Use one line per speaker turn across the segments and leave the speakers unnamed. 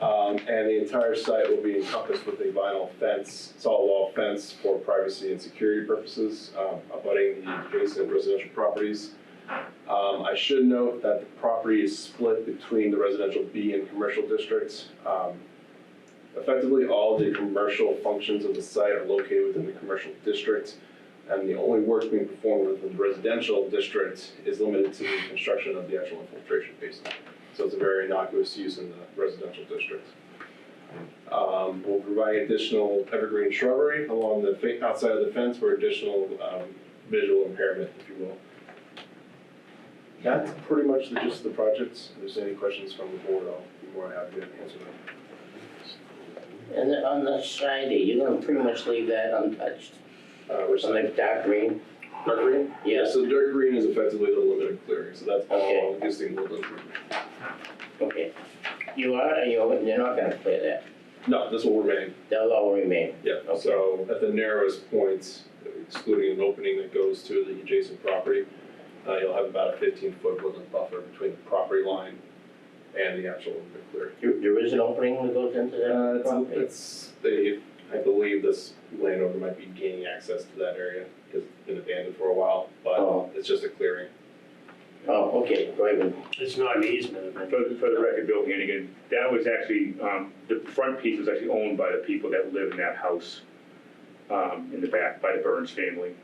Um, and the entire site will be encompassed with a vinyl fence, solid wall fence for privacy and security purposes, um, abutting the adjacent residential properties. Um, I should note that the property is split between the residential B and commercial districts. Um, effectively, all the commercial functions of the site are located within the commercial district. And the only work being performed within the residential district is limited to the construction of the actual infiltration basin. So it's a very innocuous use in the residential district. Um, we'll provide additional evergreen shrubbery along the, fa- outside of the fence for additional, um, visual impairment, if you will. That's pretty much the gist of the project. If there's any questions from the board, I'll be more than happy to answer them.
And then on the side, you're gonna pretty much leave that untouched,
Uh, we're
so
signing
like dark green?
dark green?
Yeah.
So dark green is effectively the limit of clearing, so that's all
Okay.
existing woodland. improvement.
Okay. You are, or you're, you're not gonna clear that,
No, this will remain,
they'll all remain,
yeah. So at the narrowest point, excluding an opening that goes to the adjacent property, uh, you'll have about a fifteen foot woodland buffer between the property line and the actual limit of clearing.
there, there is an opening that goes into
Uh,
that
it's,
property?
it's, they, I believe this landowner might be gaining access to that area, it's been abandoned for a while,
Oh.
but it's just a clearing.
Oh, okay, very good,
It's not an easement.
For, for the record, Bill Hannigan, that was actually, um, the front piece was actually owned by the people that live in that house, um, in the back, by the Burns family.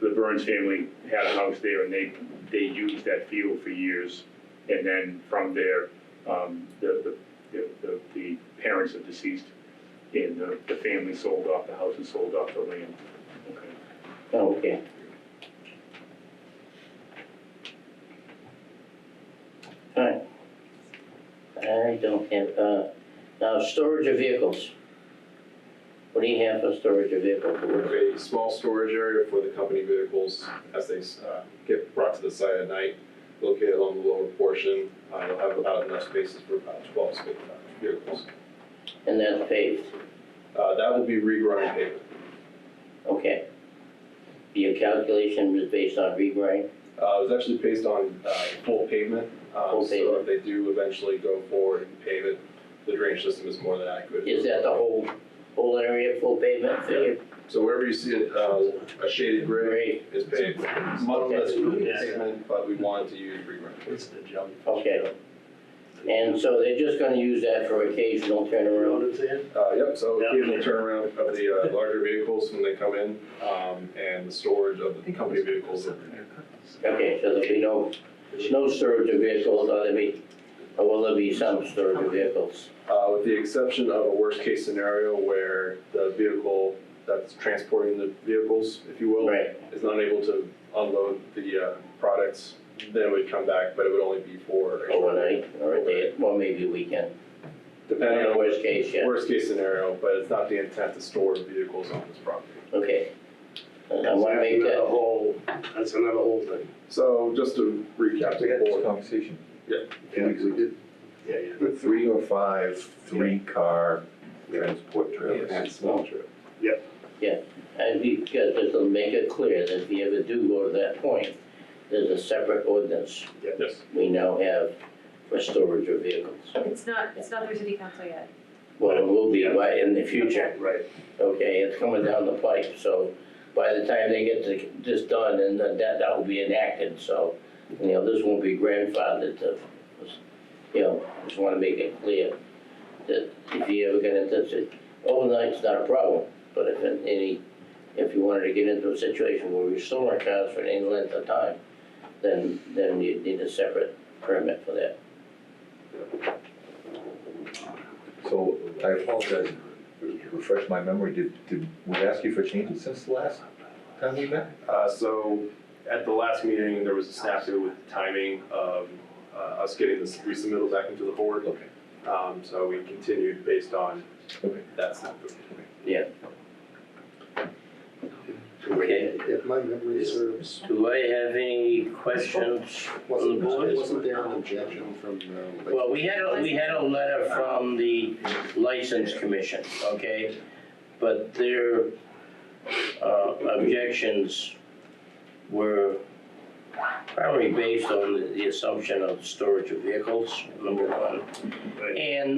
The Burns family had a house there and they, they used that field for years. And then from there, um, the, the, the, the parents of deceased and the, the family sold off the house and sold off the land. Okay.
Oh, okay. Alright. I don't have, uh, now, storage of vehicles. What do you have for storage of vehicles?
A small storage area for the company vehicles as they, uh, get brought to the site at night, located along the lower portion. Uh, you'll have about enough spaces for about twelve space, uh, vehicles.
And that's paved,
Uh, that will be regrind pavement.
okay. Your calculation was based on regrind?
Uh, it was actually based on, uh, full pavement. Um,
Full
So if
pavement.
they do eventually go forward and pave it, the drainage system is more than adequate.
Is that the whole, whole area full pavement?
Yeah. So wherever you see it, uh, a shaded gray
Great,
is paved. Muddle that's
Yeah.
pavement, but we wanted to use regrind.
It's the jump.
Okay. and so they're just gonna use that for occasional turnaround?
Road is in.
Uh, yep, so
Yeah.
occasional turnaround of the, uh, larger vehicles when they come in, um, and the storage of the company vehicles.
Okay, so there'll be no, no storage of vehicles, or there'll be, or will there be some storage of vehicles?
Uh, with the exception of a worst-case scenario where the vehicle that's transporting the vehicles, if you will,
Right,
is not able to unload the, uh, products, then it would come back, but it would only be for.
overnight, or a day, well, maybe a weekend,
Depending on
worst case, yeah,
worst-case scenario, but it's not the intent to store vehicles on this property.
okay. And I wanna make
That's another
that,
whole, that's another whole thing.
So just to recap,
We
the
had this
board,
conversation.
Yeah.
Two weeks ago.
Yeah, yeah.
Three or five, three car transport trailers.
and small trip.
and because this'll make it clear that if you ever do go to that point, there's a separate ordinance
Yes.
we now have for storage of vehicles.
It's not, it's not through city council yet.
Well, it will be right in the future.
Right.
okay, it's coming down the pipe, so by the time they get th- this done, and that, that will be enacted, so, you know, this won't be grandfathered to, you know, just wanna make it clear that if you ever get into, si- overnight's not a problem, but if in any, if you wanted to get into a situation where you're storing cars for any length of time, then, then you'd need a separate permit for that.
So I apologize, refresh my memory, did, did we ask you for changes since the last time we met?
Uh, so at the last meeting, there was a snafu with the timing of uh, us getting this resubmittal back into the board.
Okay.
Um, so we continued based on
Okay.
that snafu.
Okay.
If my memory serves,
Do I have any questions from the
wasn't,
board?
wasn't there an objection from, uh, like,
Well, we had, a we had a letter from the License Commission, okay? But their uh, objections were primarily based on the- the assumption of storage of vehicles, number one.
Right.
And